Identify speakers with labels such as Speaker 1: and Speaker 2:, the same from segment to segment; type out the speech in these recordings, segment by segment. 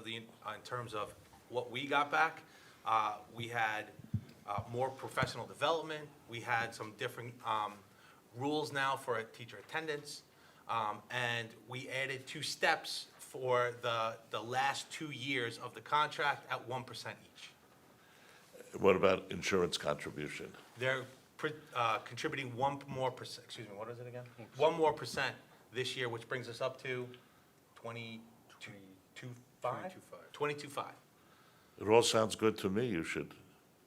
Speaker 1: the, uh, in terms of what we got back, uh, we had uh, more professional development, we had some different um, rules now for teacher attendance, um, and we added two steps for the, the last two years of the contract at 1% each.
Speaker 2: What about insurance contribution?
Speaker 1: They're pr- uh, contributing one more percent, excuse me, what is it again? One more percent this year, which brings us up to 22, 5? 22.5.
Speaker 2: It all sounds good to me. You should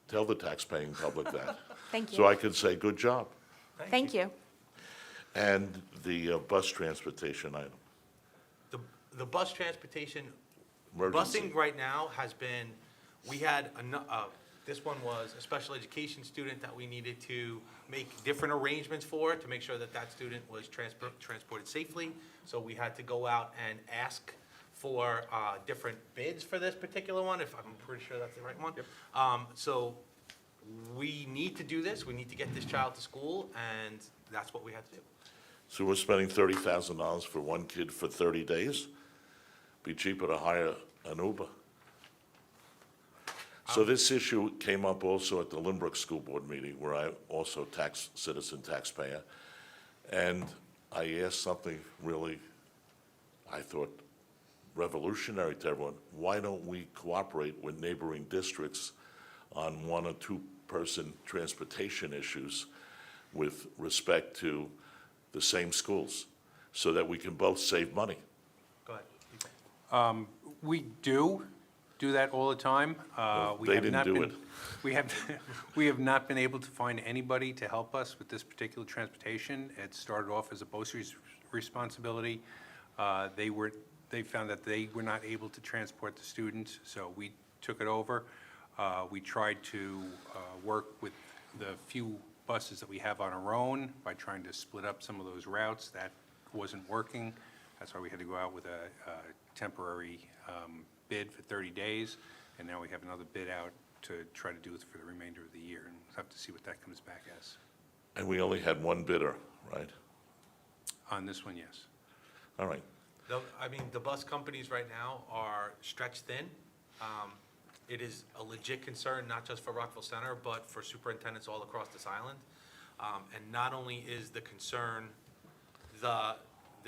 Speaker 2: tell the taxpaying public that.
Speaker 3: Thank
Speaker 2: So
Speaker 3: you.
Speaker 2: I could say, good job.
Speaker 3: Thank you.
Speaker 2: And the uh, bus transportation item,
Speaker 1: The, the bus transportation,
Speaker 2: Emergency.
Speaker 1: busing right now has been, we had, ano- uh, this one was a special education student that we needed to make different arrangements for, to make sure that that student was transport, transported safely. So we had to go out and ask for, uh, different bids for this particular one, if I'm pretty sure that's the right one. Um, so we need to do this, we need to get this child to school, and that's what we had to do.
Speaker 2: So we're spending thirty thousand dollars for one kid for thirty days? Be cheaper to hire an Uber. So this issue came up also at the Lynbrook School Board meeting, where I also tax, citizen taxpayer. And I asked something really, I thought revolutionary to everyone. Why don't we cooperate with neighboring districts on one or two-person transportation issues with respect to the same schools, so that we can both save money?
Speaker 1: Go ahead.
Speaker 4: We do do that all the time. Uh, we
Speaker 2: They
Speaker 4: have
Speaker 2: didn't
Speaker 4: not
Speaker 2: do
Speaker 4: been-
Speaker 2: it.
Speaker 4: We have, we have not been able to find anybody to help us with this particular transportation. It started off as a BOSI's responsibility. Uh, They were, they found that they were not able to transport the students, so we took it over. Uh, We tried to uh, work with the few buses that we have on our own by trying to split up some of those routes. That wasn't working. That's why we had to go out with a a temporary um, bid for 30 days, and now we have another bid out to try to do it for the remainder of the year, and we'll have to see what that comes back as.
Speaker 2: And we only had one bidder, right?
Speaker 4: On this one, yes.
Speaker 2: All right.
Speaker 1: The, I mean, the bus companies right now are stretched thin. Um, It is a legit concern, not just for Rockville Center, but for superintendents all across this island. Um, And not only is the concern the,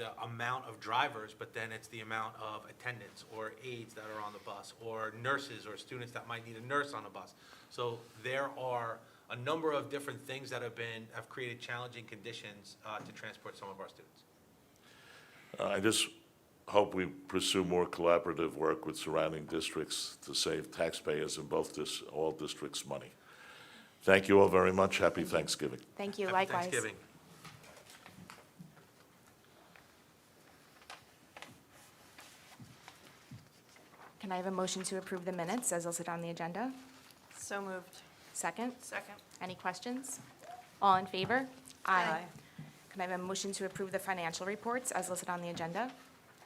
Speaker 1: the amount of drivers, but then it's the amount of attendants or aides that are on the bus, or nurses or students that might need a nurse on a bus. So there are a number of different things that have been, have created challenging conditions uh, to transport some of our students.
Speaker 2: Uh, I just hope we pursue more collaborative work with surrounding districts to save taxpayers in both dis, all districts money. Thank you all very much. Happy Thanksgiving.
Speaker 3: Thank you,
Speaker 1: Happy
Speaker 3: likewise.
Speaker 1: Thanksgiving.
Speaker 3: Can I have a motion to approve the minutes as listed on the agenda?
Speaker 5: So moved.
Speaker 3: Second?
Speaker 5: Second.
Speaker 3: Any questions? All in favor?
Speaker 5: Aye.
Speaker 3: Can I have a motion to approve the financial reports as listed on the agenda?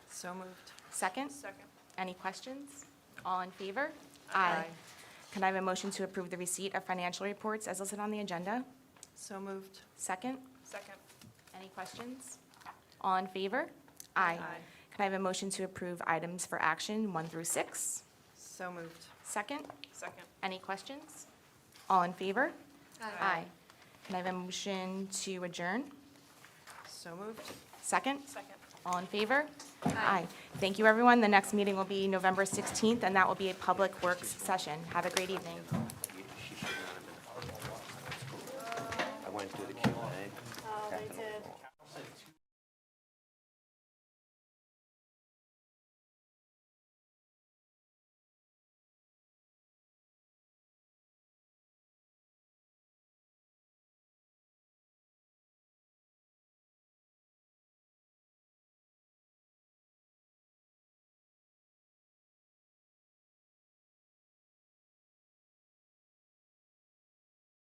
Speaker 5: So moved.
Speaker 3: Second?
Speaker 5: Second.
Speaker 3: Any questions? All in favor?
Speaker 5: Aye.
Speaker 3: Can I have a motion to approve the receipt of financial reports as listed on the agenda?
Speaker 5: So moved.
Speaker 3: Second?
Speaker 5: Second.
Speaker 3: Any questions? All in favor?
Speaker 5: Aye.
Speaker 3: Can I have a motion to approve items for action one through six?
Speaker 5: So moved.
Speaker 3: Second?
Speaker 5: Second.
Speaker 3: Any questions? All in favor? Can I have a motion to adjourn?
Speaker 5: So moved.
Speaker 3: Second?
Speaker 5: Second.
Speaker 3: All in favor? Aye. Thank you, everyone. The next meeting will be November 16th, and that will be a public works session. Have a great evening.
Speaker 6: she should not have been. I went through the Q and A.